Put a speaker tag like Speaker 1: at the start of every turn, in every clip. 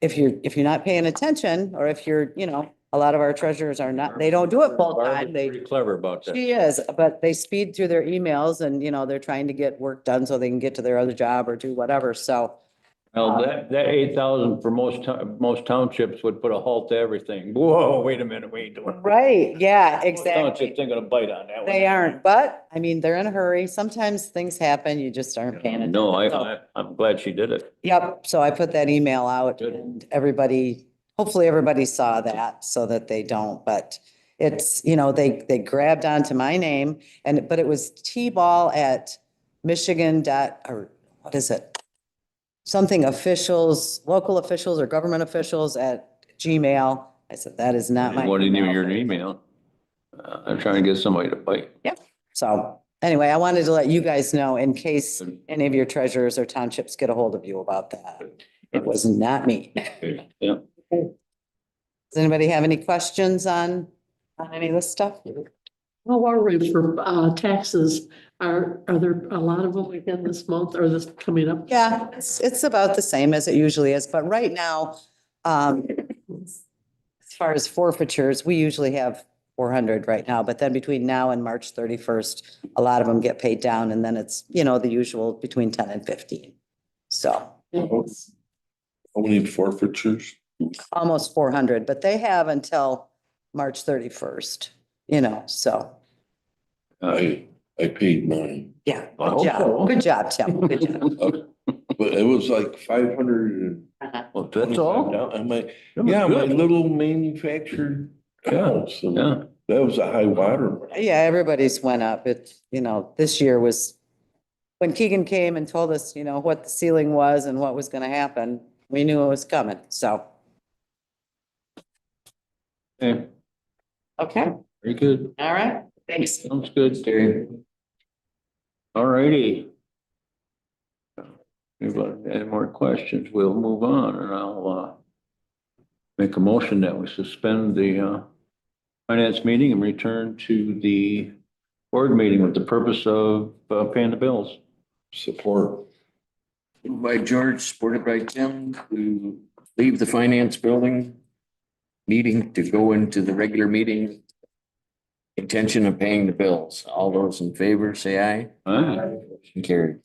Speaker 1: if you're, if you're not paying attention, or if you're, you know, a lot of our treasurers are not, they don't do it full time,
Speaker 2: Barbara's
Speaker 1: they.
Speaker 2: Pretty clever about that.
Speaker 1: She is, but they speed through their emails and, you know, they're trying to get work done so they can get to their other job or do whatever, so.
Speaker 2: Well, that, that eight thousand for most, to- most townships would put a halt to everything. Whoa, wait a minute, what are you doing?
Speaker 1: Right, yeah,
Speaker 2: Most Townships ain't gonna bite on that one.
Speaker 1: They aren't, but, I mean, they're in a hurry, sometimes things happen, you just aren't paying attention.
Speaker 2: No, I,
Speaker 1: So-
Speaker 2: I, I'm glad she did it.
Speaker 1: Yep, so I put that email out
Speaker 2: Good.
Speaker 1: and everybody, hopefully everybody saw that so that they don't, but it's, you know, they, they grabbed onto my name and, but it was T-ball at Michigan dot, or what is it? Something officials, local officials or government officials at Gmail. I said, that is not my.
Speaker 2: What didn't even
Speaker 1: email."
Speaker 2: hear an email. Uh, I'm trying to get somebody to bite.
Speaker 1: So anyway, I wanted to let you guys know in case any of your treasurers or townships get a hold of you about that. It was not me.
Speaker 2: Yeah.
Speaker 1: Does anybody have any questions on, on any of this stuff?
Speaker 3: How are we for uh, taxes? Are, are there a lot of them again this month or this coming up?
Speaker 1: Yeah, it's, it's about the same as it usually is, but right now, um, as far as forfeitures, we usually have four hundred right now, but then between now and March thirty-first, a lot of them get paid down and then it's, you know, the usual between ten and fifteen. So
Speaker 4: How many forfeitures?
Speaker 1: almost four hundred, but they have until March thirty-first, you know, so,
Speaker 4: I, I paid mine,
Speaker 1: yeah.
Speaker 2: I
Speaker 1: Good
Speaker 2: hope so.
Speaker 1: job, good job, Tim. Good job.
Speaker 4: but it was like five hundred and.
Speaker 2: Well, that's all.
Speaker 4: I'm like,
Speaker 2: That was
Speaker 4: yeah, my
Speaker 2: good.
Speaker 4: little manufactured house, and
Speaker 2: Yeah.
Speaker 4: that was a high water.
Speaker 1: Yeah, everybody's went up. It, you know, this year was, when Keegan came and told us, you know, what the ceiling was and what was gonna happen, we knew it was coming, so.
Speaker 2: Okay,
Speaker 1: Okay,
Speaker 2: Very good.
Speaker 1: all right, thanks.
Speaker 2: Sounds good, Terry. All righty. If there are any more questions, we'll move on and I'll, uh, make a motion that we suspend the, uh, finance meeting and return to the board meeting with the purpose of uh, paying the bills.
Speaker 4: Support.
Speaker 5: Moved By George, supported by Tim, to leave the finance building meeting to go into the regular meeting. Intention of paying the bills. All those in favor, say aye.
Speaker 2: All right.
Speaker 5: Motion Carried.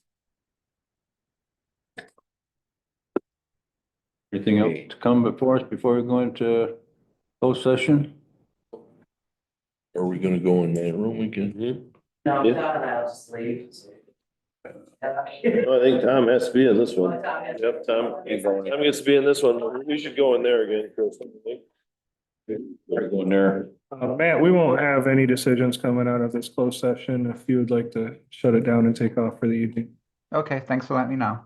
Speaker 2: Anything else to come before us, before we go into post session?
Speaker 4: Are we gonna go in that room again?
Speaker 6: No,
Speaker 2: Yeah.
Speaker 6: Tom and I'll just leave.
Speaker 7: I think Tom has to be in this one.
Speaker 6: Yep,
Speaker 7: Yep, Tom. Tom gets to be in this one. We should go in there again, Chris. I think.
Speaker 2: We're going there.
Speaker 8: Uh, Matt, we won't have any decisions coming out of this closed session if you would like to shut it down and take off for the evening.
Speaker 9: Okay, thanks for letting me know.